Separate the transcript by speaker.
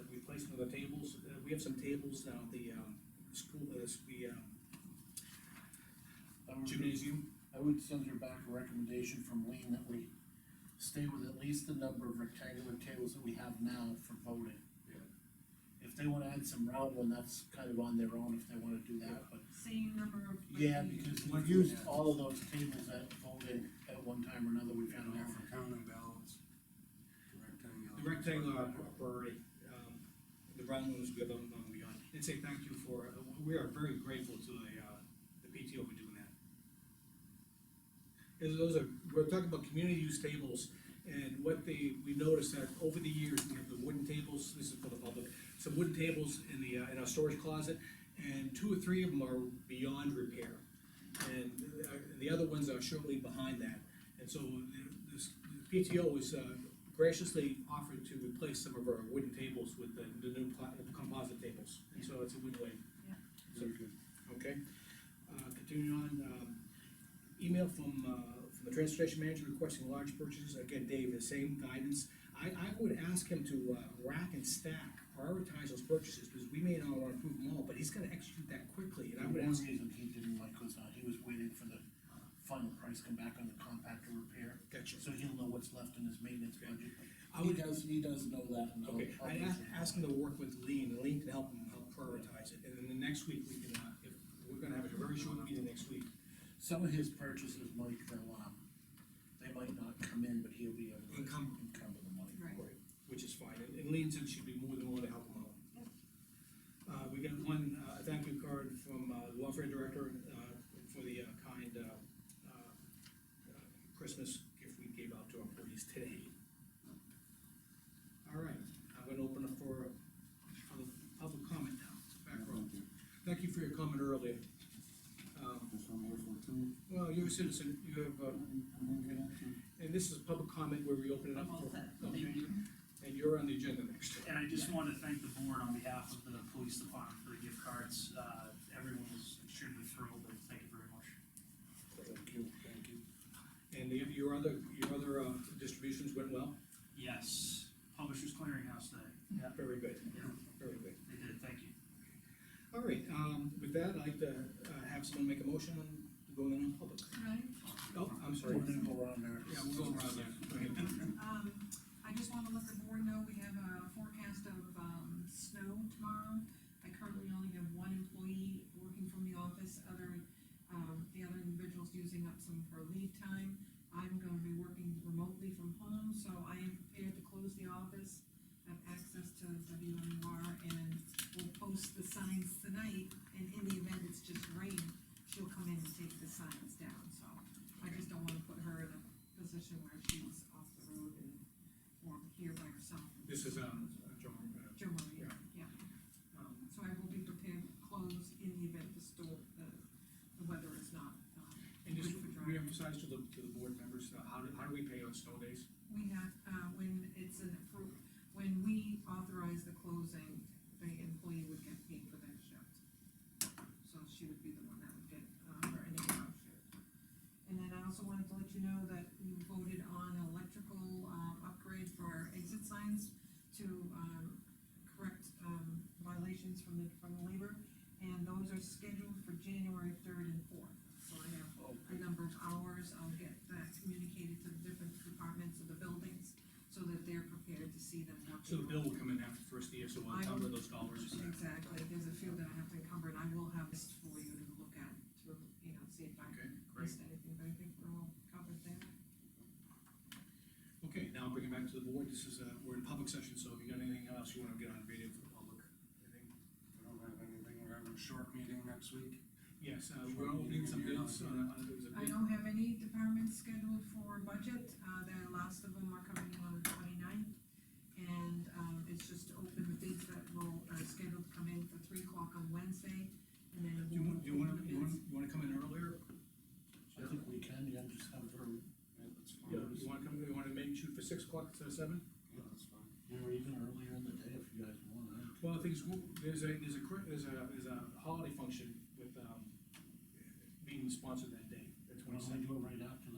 Speaker 1: Uh, we have some tables now, the, um, school, uh, the, um,
Speaker 2: I would-
Speaker 1: gymnasium.
Speaker 2: I would send her back a recommendation from Lean that we stay with at least the number of rectangular tables that we have now for voting.
Speaker 3: Yeah.
Speaker 2: If they wanna add some round one, that's kind of on their own if they wanna do that, but,
Speaker 4: same number of.
Speaker 2: yeah, because
Speaker 3: Like
Speaker 2: we've
Speaker 3: we
Speaker 2: used
Speaker 3: had.
Speaker 2: all of those tables at voting at one time or another, we've had
Speaker 3: Down
Speaker 2: them
Speaker 3: there
Speaker 2: all.
Speaker 3: for count and balance. Rectangle.
Speaker 1: The rectangle are priority, um, the round ones we have them on beyond, and say thank you for, uh, we are very grateful to the, uh, the PTO for doing that. Is those are, we're talking about community use tables, and what they, we noticed that over the years, we have the wooden tables, this is for the public, some wooden tables in the, uh, in our storage closet, and two or three of them are beyond repair. And uh, the other ones are shortly behind that, and so the- this, the PTO is uh, graciously offered to replace some of our wooden tables with the, the new pla- composite tables, and so it's a win-win.
Speaker 4: Yeah.
Speaker 2: Very good.
Speaker 1: Okay, uh, continuing on, um, email from, uh, from the transportation manager requesting large purchases, again, Dave, the same guidance. I, I would ask him to, uh, rack and stack, prioritize those purchases, because we may not wanna approve them all, but he's gonna execute that quickly, and I
Speaker 2: The
Speaker 1: would
Speaker 2: one
Speaker 1: ask.
Speaker 2: reason he didn't like was, uh, he was waiting for the final price come back on the compactor repair,
Speaker 1: Gotcha.
Speaker 2: so he'll know what's left in his maintenance budget.
Speaker 1: I
Speaker 2: He
Speaker 1: would,
Speaker 2: does, he does know that, and I'll-
Speaker 1: okay,
Speaker 2: I'll
Speaker 1: I'd
Speaker 2: give
Speaker 1: ask,
Speaker 2: him-
Speaker 1: ask him to work with Lean, and Lean can help him, help prioritize it, and then the next week, we can, uh, if, we're gonna have a very short meeting next week.
Speaker 2: Some of his purchases, Mike, they'll, um, they might not come in, but he'll be able to
Speaker 1: Encumber.
Speaker 2: encumber the money.
Speaker 4: Right.
Speaker 1: Which is fine, and- and Lean said she'd be more than willing to help him out. Uh, we got one, uh, a thank you card from, uh, the welfare director, uh, for the, uh, kind, uh, uh, uh, Christmas gift we gave out to our employees today. All right, I'm gonna open up for public, public comment now, back row.
Speaker 3: Thank you.
Speaker 1: Thank you for your comment earlier. Um,
Speaker 3: This one here for two.
Speaker 1: well, you're a citizen, you have, uh,
Speaker 3: I didn't get it.
Speaker 1: and this is public comment where we open it up
Speaker 4: I'm all
Speaker 1: for,
Speaker 4: set,
Speaker 1: Okay.
Speaker 4: thank you.
Speaker 1: and you're on the agenda next.
Speaker 5: And I just wanted to thank the board on behalf of the police department for the gift cards. Uh, everyone was extremely thrilled, and thank you very much.
Speaker 2: Thank you, thank you.
Speaker 1: And the- your other, your other uh, distributions went well?
Speaker 5: Yes, Publishers Clearinghouse Day. Yeah.
Speaker 1: Very good,
Speaker 5: Yeah,
Speaker 1: very good.
Speaker 5: they did, thank you.
Speaker 1: All right, um, with that, I'd like to uh, have someone make a motion to go in on public.
Speaker 4: Right,
Speaker 1: Oh, I'm
Speaker 2: We're
Speaker 1: sorry.
Speaker 2: gonna go around there.
Speaker 1: Yeah, we'll go around there.
Speaker 4: um, I just wanna let the board know, we have a forecast of, um, snow tomorrow. I currently only have one employee working from the office, other, um, the other individual's using up some of her leave time. I'm gonna be working remotely from home, so I am prepared to close the office, have access to WMUR, and we'll post the signs tonight, and in the event it's just rain, she'll come in and take the signs down, so I just don't wanna put her in a position where she's off the road and, or here by herself.
Speaker 1: This is, um, John, uh,
Speaker 4: Joe Maria,
Speaker 1: Yeah.
Speaker 4: yeah. Um, so I will be prepared to close in the event the store, the, the weather is not, um,
Speaker 1: and just
Speaker 4: good for driving.
Speaker 1: reemphasize to the, to the board members, uh, how do, how do we pay on snow days?
Speaker 4: We have, uh, when it's an approved, when we authorize the closing, the employee would get paid for that shift. So she would be the one that would get, uh, her any amount of shift. And then I also wanted to let you know that you voted on electrical, um, upgrade for our exit signs to, um, correct, um, violations from the, from the labor. And those are scheduled for January third and fourth, so I have
Speaker 2: Oh,
Speaker 4: a number of hours, I'll get that communicated to the different departments of the buildings, so that they're prepared to see them working.
Speaker 1: So the bill will come in after the first year, so we'll
Speaker 4: I
Speaker 1: cover those dollars.
Speaker 4: Exactly, there's a few that I have to encumber, and I will have this for you to look at, to, you know, see if I
Speaker 1: Okay, great.
Speaker 4: missed anything, but I think we're all covered there.
Speaker 1: Okay, now I'll bring it back to the board. This is, uh, we're in public session, so if you got anything else you wanna get on video for the public? anything?
Speaker 3: I don't have anything, we're having a short meeting next week.
Speaker 1: Yes, uh, we're opening some bids on, a- on, a- it was a
Speaker 4: I
Speaker 1: bid.
Speaker 4: don't have any departments scheduled for budget, uh, the last of them are coming in on the 29th, And, um, it's just to open the bids that will, are scheduled to come in for three o'clock on Wednesday, and then.
Speaker 1: Do you want, do you wanna,
Speaker 4: we'll open the
Speaker 1: you wanna,
Speaker 4: bids.
Speaker 1: you wanna come in earlier?
Speaker 2: I think we can, you can just have her,
Speaker 3: Yeah, that's fine.
Speaker 1: Yeah, you wanna come, you wanna make, shoot for six o'clock instead of seven?
Speaker 3: Yeah, that's fine.
Speaker 2: or even earlier in the day if you guys want. I-
Speaker 1: Well, the thing is, w- there's a, there's a, cri- there's a, there's a holiday function with, um, being sponsored that day, the
Speaker 2: Why don't
Speaker 1: twenty-second.
Speaker 2: we do it right after